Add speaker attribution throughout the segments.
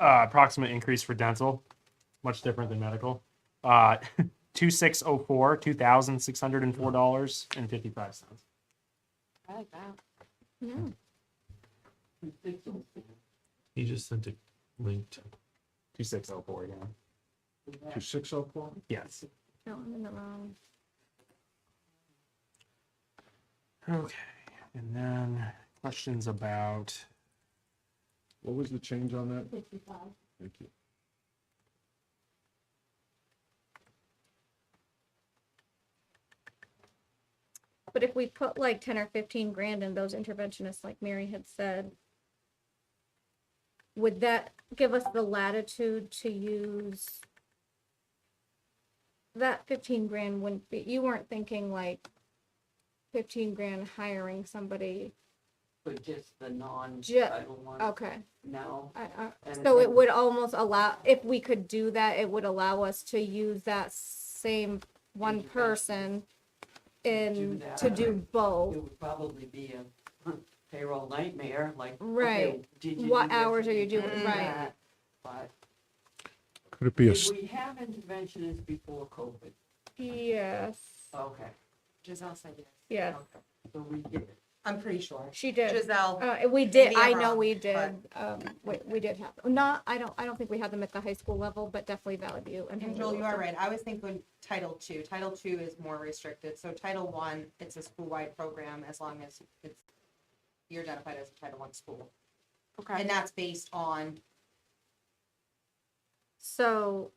Speaker 1: uh, approximate increase for dental, much different than medical. Uh, two six oh four, two thousand six hundred and four dollars and fifty five cents.
Speaker 2: I like that.
Speaker 3: He just sent a link to.
Speaker 1: Two six oh four again.
Speaker 4: To six oh four?
Speaker 1: Yes.
Speaker 2: No, I'm in the wrong.
Speaker 1: Okay. And then questions about
Speaker 4: What was the change on that?
Speaker 2: Fifty-five.
Speaker 4: Thank you.
Speaker 2: But if we put like ten or fifteen grand in those interventionists, like Mary had said, would that give us the latitude to use? That fifteen grand wouldn't be, you weren't thinking like fifteen grand hiring somebody,
Speaker 5: But just the
Speaker 2: Ju-
Speaker 5: non-title one
Speaker 2: okay,
Speaker 5: now.
Speaker 2: I, I,
Speaker 5: and
Speaker 2: uh, so it
Speaker 5: then-
Speaker 2: would almost allow, if we could do that, it would allow us to use that same one person
Speaker 5: Intervention.
Speaker 2: in,
Speaker 5: that.
Speaker 2: to do both.
Speaker 5: It would probably be a payroll nightmare, like. okay,
Speaker 2: Right.
Speaker 5: did you
Speaker 2: What
Speaker 5: do this?
Speaker 2: hours are
Speaker 5: Did
Speaker 2: you
Speaker 5: do
Speaker 2: doing?
Speaker 5: that?
Speaker 2: Right.
Speaker 5: But
Speaker 4: Could it be a, s-
Speaker 5: did we have interventionists before COVID?
Speaker 2: Yes,
Speaker 6: Oh,
Speaker 5: Okay.
Speaker 6: Giselle said yes.
Speaker 2: yes,
Speaker 5: okay. So we did.
Speaker 6: I'm pretty sure.
Speaker 2: she did.
Speaker 6: Giselle.
Speaker 2: Uh, we did,
Speaker 6: Maybe
Speaker 2: I
Speaker 6: I'm
Speaker 2: know
Speaker 6: wrong,
Speaker 2: we did, um, we, we did have, not, I don't, I don't think we had them at the high school level, but definitely Valley View. and
Speaker 6: And Joel, you are right. I was thinking Title Two. Title Two is more restricted. So Title One, it's a school-wide program as long as it's, you're identified as a Title One school.
Speaker 2: Okay,
Speaker 6: And that's based on,
Speaker 2: so,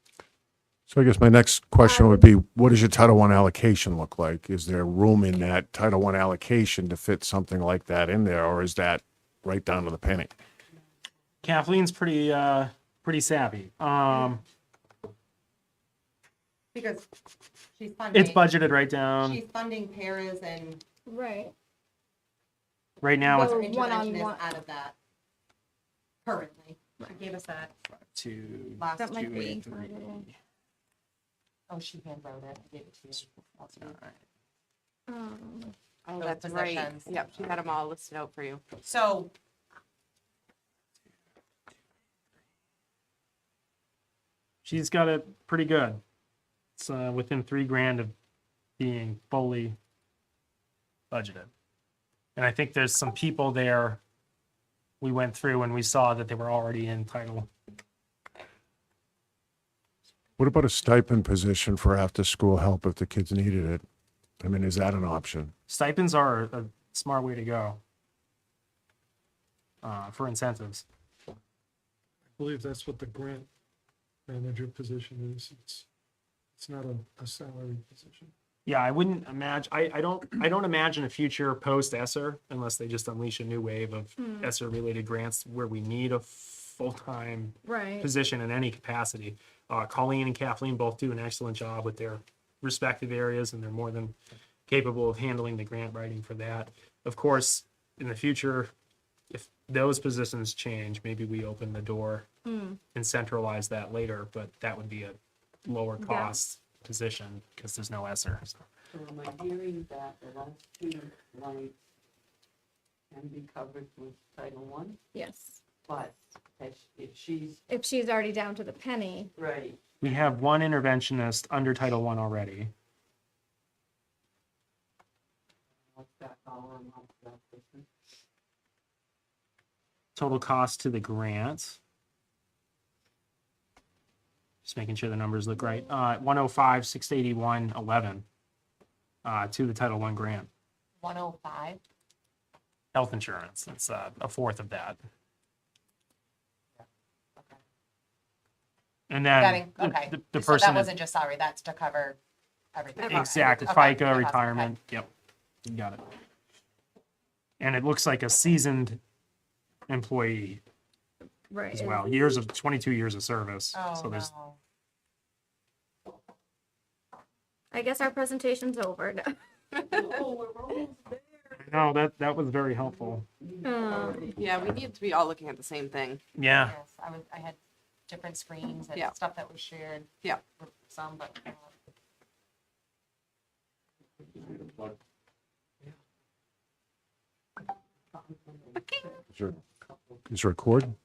Speaker 4: so I guess my next question would be, what does your Title One allocation look like? Is there room in that Title One allocation to fit something like that in there, or is that right down to the penny?
Speaker 1: Kathleen's pretty uh pretty savvy. Um
Speaker 6: because she's funding.
Speaker 1: it's budgeted right down.
Speaker 6: She's funding paras and
Speaker 2: right,
Speaker 1: Right now it's
Speaker 6: other
Speaker 2: Well, one-on-one.
Speaker 6: interventionists out of that currently. She gave us that
Speaker 1: two
Speaker 6: last,
Speaker 2: that might
Speaker 1: two
Speaker 2: be.
Speaker 1: eight three.
Speaker 6: oh, she handwrote it. I gave it to you. That's fine.
Speaker 2: um,
Speaker 7: Oh,
Speaker 6: those
Speaker 7: that's right.
Speaker 6: positions.
Speaker 7: Yep, she had them all listed out for you.
Speaker 6: So.
Speaker 1: She's got it pretty good. It's uh, within three grand of being fully budgeted. And I think there's some people there we went through and we saw that they were already in title.
Speaker 4: What about a stipend position for after-school help if the kids needed it? I mean, is that an option?
Speaker 1: Stipends are a smart way to go uh, for incentives.
Speaker 8: believe that's what the grant manager position is. It's, it's not a, a salary position.
Speaker 1: Yeah, I wouldn't imagine. I, I don't. I don't imagine a future post ESSER unless they just unleash a new wave of
Speaker 2: Hmm.
Speaker 1: ESSER related grants where we need a full time
Speaker 2: Right,
Speaker 1: position in any capacity. Uh, Colleen and Kathleen both do an excellent job with their respective areas, and they're more than capable of handling the grant writing for that. Of course, in the future, if those positions change, maybe we open the door
Speaker 2: mm,
Speaker 1: and centralize that later, but that would be a lower
Speaker 2: Yeah.
Speaker 1: cost position because there's no ESSER. so.
Speaker 5: So am I hearing that the last two lines can be covered with Title One,
Speaker 2: yes,
Speaker 5: but if if she's,
Speaker 2: if she's already down to the penny,
Speaker 5: right,
Speaker 1: We have one interventionist under Title One already.
Speaker 5: what's that dollar amount for that person?
Speaker 1: total cost to the grant. Just making sure the numbers look right. Uh, one oh five, six eighty-one, eleven. Uh, to the Title One grant,
Speaker 6: One oh five.
Speaker 1: health insurance, that's uh, a fourth of that. And
Speaker 6: That
Speaker 1: then
Speaker 6: in-
Speaker 1: the-
Speaker 6: okay.
Speaker 1: the, the
Speaker 6: So
Speaker 1: person,
Speaker 6: that
Speaker 1: that-
Speaker 6: wasn't just salary, that's to cover everything.
Speaker 1: exactly,
Speaker 6: Okay,
Speaker 1: FICA,
Speaker 6: okay.
Speaker 1: retirement, yep, you got it. And it looks like a seasoned employee
Speaker 2: right.
Speaker 1: as
Speaker 2: is-
Speaker 1: well, years of, twenty-two years of service,
Speaker 6: Oh,
Speaker 1: so there's
Speaker 6: no.
Speaker 2: I guess our presentation's over. No.
Speaker 5: Oh, we're almost
Speaker 1: No, that, that was very helpful.
Speaker 2: Um,
Speaker 7: Yeah, we need to be all looking at the same thing.
Speaker 1: Yeah.
Speaker 6: Yes, I was, I had different screens and
Speaker 7: Yeah.
Speaker 6: stuff that was shared.
Speaker 7: Yeah.
Speaker 6: Some, but. uh,
Speaker 4: Is there, is there a cord?